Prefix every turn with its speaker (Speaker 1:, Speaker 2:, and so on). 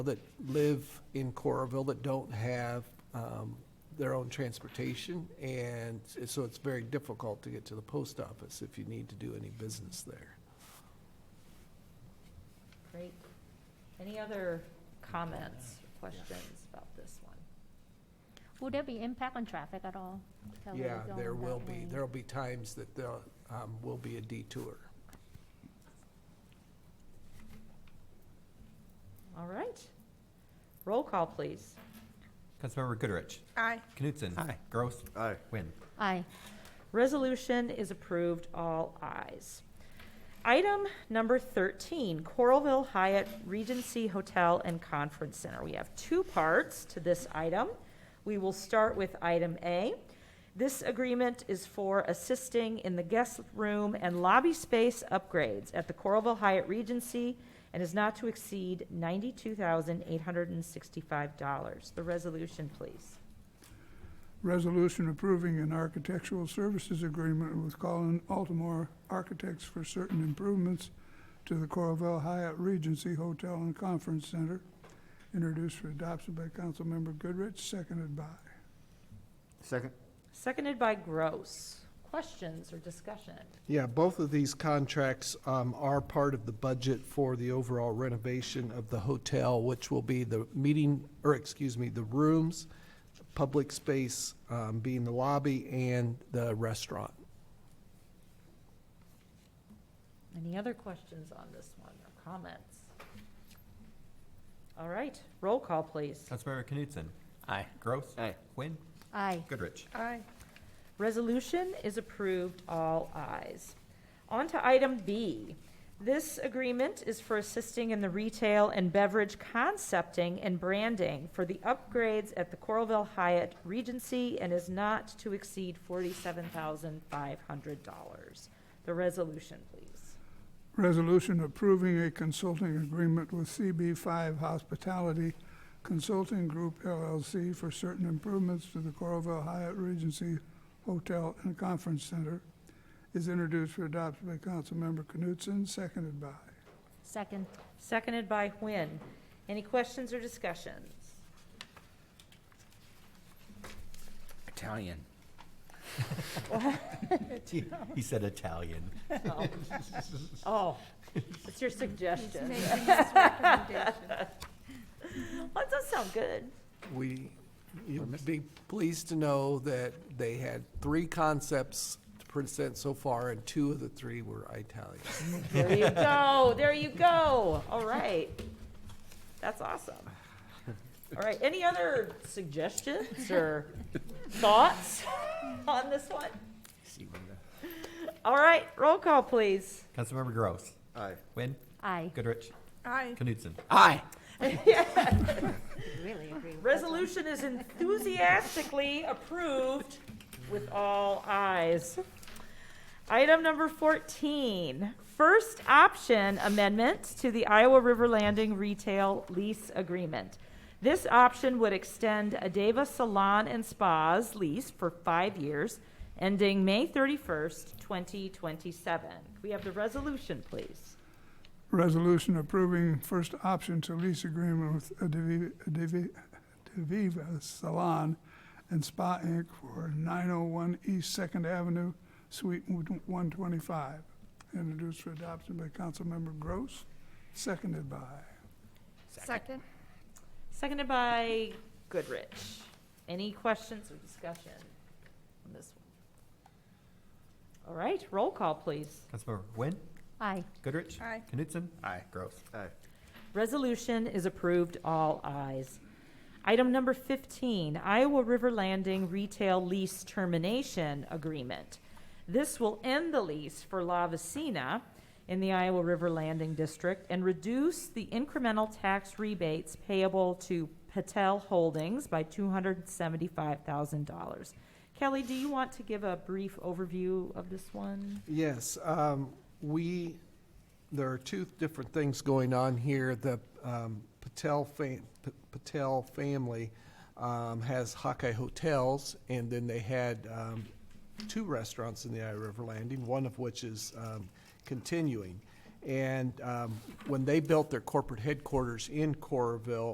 Speaker 1: that live in Coralville that don't have um, their own transportation, and s- so it's very difficult to get to the post office if you need to do any business there.
Speaker 2: Great. Any other comments, questions about this one?
Speaker 3: Will there be impact on traffic at all? Tell them
Speaker 1: Yeah,
Speaker 3: going
Speaker 1: there will
Speaker 3: that
Speaker 1: be,
Speaker 3: way.
Speaker 1: there'll be times that there um, will be a detour.
Speaker 2: All right. Roll call, please.
Speaker 4: Councilmember Goodrich.
Speaker 5: Aye.
Speaker 4: Knutson. Aye. Gross.
Speaker 6: Aye.
Speaker 4: Wynn.
Speaker 3: Aye.
Speaker 2: Resolution is approved, all ayes. Item number 13, Coralville Hyatt Regency Hotel and Conference Center. We have two parts to this item. We will start with item A. This agreement is for assisting in the guest room and lobby space upgrades at the Coralville Hyatt Regency and is not to exceed $92,865. The resolution, please.
Speaker 7: Resolution approving an architectural services agreement with Colin Altamore Architects for certain improvements to the Coralville Hyatt Regency Hotel and Conference Center, introduced for adoption by Councilmember Goodrich, seconded by.
Speaker 6: Second?
Speaker 2: Seconded by Gross. Questions or discussion?
Speaker 1: Yeah, both of these contracts um, are part of the budget for the overall renovation of the hotel, which will be the meeting, or excuse me, the rooms, public space um, being the lobby, and the restaurant.
Speaker 2: Any other questions on this one or comments? All right, roll call, please.
Speaker 4: Councilmember Knutson. Aye. Gross.
Speaker 6: Aye.
Speaker 4: Wynn.
Speaker 3: Aye.
Speaker 4: Goodrich.
Speaker 5: Aye.
Speaker 2: Resolution is approved, all ayes. On to item B. This agreement is for assisting in the retail and beverage concepting and branding for the upgrades at the Coralville Hyatt Regency and is not to exceed $47,500. The resolution, please.
Speaker 7: Resolution approving a consulting agreement with CB Five Hospitality Consulting Group LLC for certain improvements to the Coralville Hyatt Regency Hotel and Conference Center, is introduced for adoption by Councilmember Knutson, seconded by.
Speaker 3: Second.
Speaker 2: Seconded by Huynh. Any questions or discussions?
Speaker 6: Italian.
Speaker 4: He he said Italian.
Speaker 2: Oh. Oh, it's your suggestion.
Speaker 5: Making this recommendation.
Speaker 2: That does sound good.
Speaker 1: We, you'd be pleased to know that they had three concepts to present so far, and two of the three were Italian.
Speaker 2: There you go, there you go. All right. That's awesome. All right, any other suggestions or thoughts on this one? All right, roll call, please.
Speaker 4: Councilmember Gross.
Speaker 6: Aye.
Speaker 4: Wynn.
Speaker 3: Aye.
Speaker 4: Goodrich.
Speaker 5: Aye.
Speaker 4: Knutson.
Speaker 6: Aye.
Speaker 3: Really agree with
Speaker 2: Resolution is enthusiastically approved with all eyes. Item number 14, first option amendment to the Iowa River Landing Retail Lease Agreement. This option would extend Adava Salon and Spa's lease for five years, ending May 31st, 2027. Can we have the resolution, please?
Speaker 7: Resolution approving first option to lease agreement with Aviv- Aviv- Aviva Salon and Spa Inc. for 901 East Second Avenue, Suite 125, introduced for adoption by Councilmember Gross, seconded by.
Speaker 5: Second.
Speaker 2: Seconded by Goodrich. Any questions or discussion on this one? All right, roll call, please.
Speaker 4: Councilmember Wynn.
Speaker 3: Aye.
Speaker 4: Goodrich.
Speaker 5: Aye.
Speaker 4: Knutson.
Speaker 6: Aye.
Speaker 4: Gross.
Speaker 6: Aye.
Speaker 2: Resolution is approved, all ayes. Item number 15, Iowa River Landing Retail Lease Termination Agreement. This will end the lease for La Vecina in the Iowa River Landing District and reduce the incremental tax rebates payable to Patel Holdings by $275,000. Kelly, do you want to give a brief overview of this one?
Speaker 1: Yes, um, we, there are two different things going on here. The, um, Patel fam- P- Patel family, um, has Hawkeye Hotels, and then they had, um, two restaurants in the Iowa River Landing, one of which is, um, continuing. And, um, when they built their corporate headquarters in Coralville,